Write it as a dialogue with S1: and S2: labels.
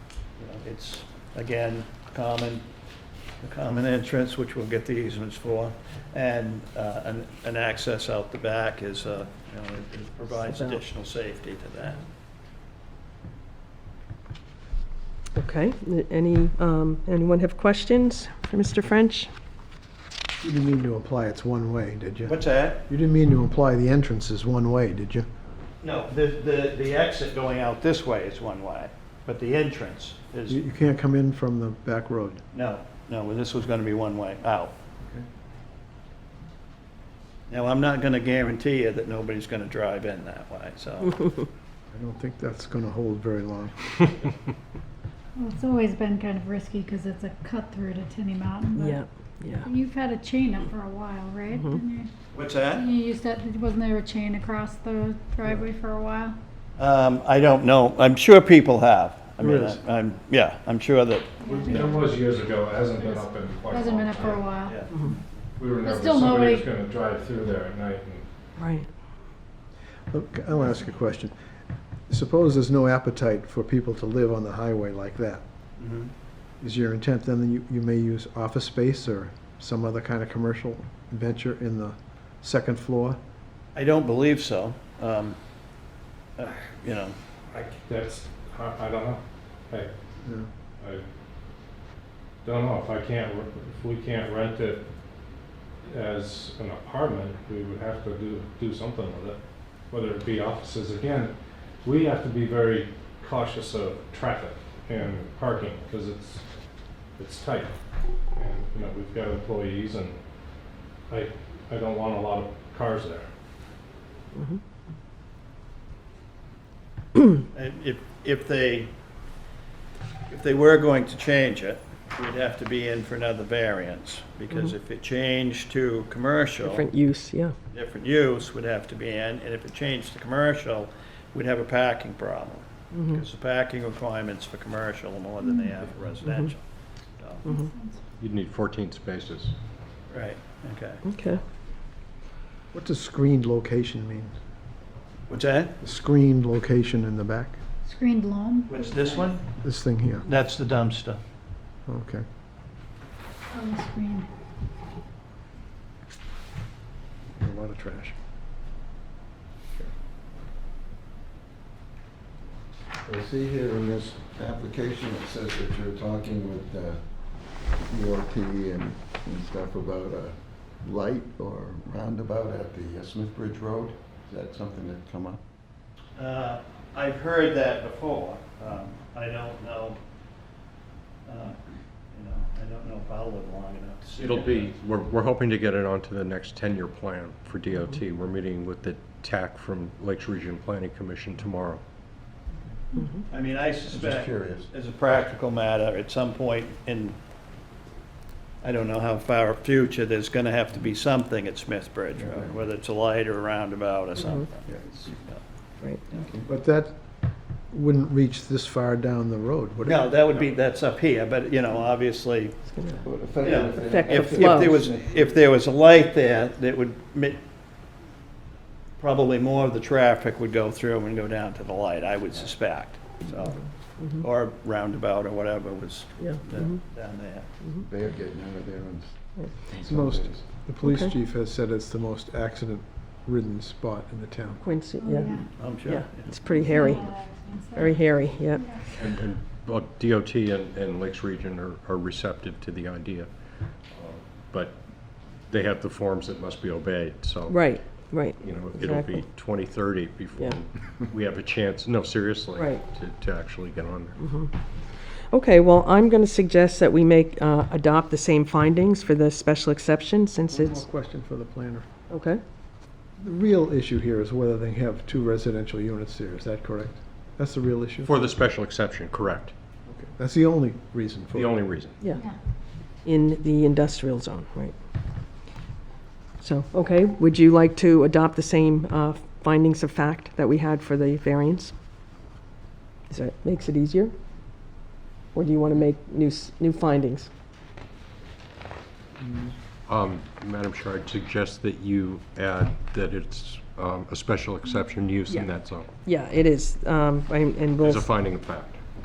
S1: It's, again, common, a common entrance, which we'll get the easements for, and uh, an an access out the back is, uh, you know, it- it provides
S2: About-
S1: additional safety to that.
S2: Okay, any, um, anyone have questions for Mr. French?
S3: You didn't mean to imply it's one way, did you?
S1: What's that?
S3: You didn't mean to imply the entrance is one way, did you?
S1: No, the the the exit going out this way is one way, but the entrance
S3: You,
S1: is,
S3: you can't come in from the back road.
S1: no, no, well, this was going to be one way out. Now, I'm not going to guarantee you that nobody's going to drive in that way, so.
S3: I don't think that's gonna hold very long.
S4: Well, it's always been kind of risky because it's a cut through to Tinny Mountain. but
S2: Yeah, Mm-hmm. yeah.
S4: You've had a chain up for a while, right? Didn't
S1: What's that?
S4: You, you used to, wasn't there a chain across the driveway for a while?
S1: Um, I don't know. I'm sure people have. I mean,
S3: There is.
S1: I- I'm, yeah, I'm sure that,
S5: There was years ago, it hasn't been up in quite a
S4: Hasn't been
S5: long
S4: up for a
S5: time.
S4: while.
S1: yeah.
S5: We were nervous
S4: still nobody-
S5: somebody was gonna drive through there at night and
S2: Right.
S3: Look, I'll ask a question. Suppose there's no appetite for people to live on the highway like that. Mm-hmm.
S1: Mhm.
S3: Is your intent then that you, you may use office space or some other kind of commercial venture in the second floor?
S1: I don't believe so. Um, uh, You know,
S5: I, that's, I, I don't know. I,
S3: No.
S5: I don't know if I can't, re- if we can't rent it as an apartment, we would have to do, do something with it. Whether it be offices, again, we have to be very cautious of traffic and parking, because it's, it's tight. And, you know, we've got employees and I, I don't want a lot of cars there.
S1: i- if, if they, if they were going to change it, we'd have to be in for another variance. Because if it changed to commercial.
S2: Different use, yeah.
S1: different use would have to be in, and if it changed to commercial, we'd have a parking problem. Because the parking requirements for commercial are more than they have for residential. So,
S4: Mm-hmm.
S2: Mm-hmm.
S6: You'd need 14 spaces.
S1: Right, okay.
S2: Okay.
S3: What does screened location mean?
S1: What's that?
S3: Screened location in the back?
S4: Screened loam.
S1: What's this one?
S3: This thing here,
S1: That's the dumpster.
S3: okay.
S4: On the screen.
S3: A lot of trash.
S7: I see here in this application, it says that you're talking with uh, DOT and and stuff about a light or roundabout at the uh, Smith Bridge Road. Is that something that come up?
S1: Uh, I've heard that before. Um, I don't know, uh, you know, I don't know if I'll live long enough to see.
S6: It'll
S1: it.
S6: be, we're, we're hoping to get it onto the next 10-year plan for DOT. We're meeting with the TAC from Lakes Region Planning Commission tomorrow.
S1: I mean, I
S7: Just
S1: suspect.
S7: curious.
S1: as a practical matter, at some point in, I don't know how far future, there's gonna have to be something at Smith Bridge, Road, whether it's a light or a roundabout or something.
S2: Right.
S3: But that wouldn't reach this far down the road, would it?
S1: No, that would be, that's up here, but, you know, obviously,
S2: It's gonna-
S7: Would it affect
S1: Yeah.
S7: anything?
S2: Affect the
S1: if, if
S2: flow.
S1: there was, if there was a light there, that would, mi- probably more of the traffic would go through and go down to the light, I would suspect, so. Or roundabout or whatever was
S2: Mm-hmm. Yeah. mm-hmm.
S1: down down there.
S7: They're getting out of there in
S2: Yeah.
S7: in some
S3: Most,
S7: ways.
S3: the police
S2: Okay.
S3: chief has said it's the most accident-ridden spot in the town.
S2: Quincy,
S4: Oh,
S2: yeah.
S1: I'm sure.
S2: Yeah, it's pretty hairy,
S4: Yeah, I was gonna say.
S2: very hairy, yeah.
S6: And, and both DOT and, and Lakes Region are, are receptive to the idea. Uh, But they have the forms that must be obeyed, so.
S2: Right, right.
S6: You know, it'll
S2: Exactly.
S6: be 2030 before
S2: Yeah.
S6: we have a chance, no, seriously.
S2: Right. Mm-hmm.
S6: To, to actually get on there.
S2: Okay, well, I'm going to suggest that we make, uh, adopt the same findings for the special exception since
S3: One more
S2: it's,
S3: question for the planner.
S2: okay?
S3: The real issue here is whether they have two residential units there, is that correct? That's the real issue?
S6: For the special exception, correct.
S3: Okay. That's the only reason for it.
S6: The only reason.
S2: Yeah.
S4: Yeah.
S2: In the industrial zone, right. So, okay, would you like to adopt the same uh, findings of fact that we had for the variance? Is that, makes it easier? Or do you want to make new, s- new findings?
S6: Um, Madam Chair, I'd suggest that you add that it's um, a special exception use in that zone,
S2: Yeah, it is, um, I'm- and we'll.
S6: as a finding of fact.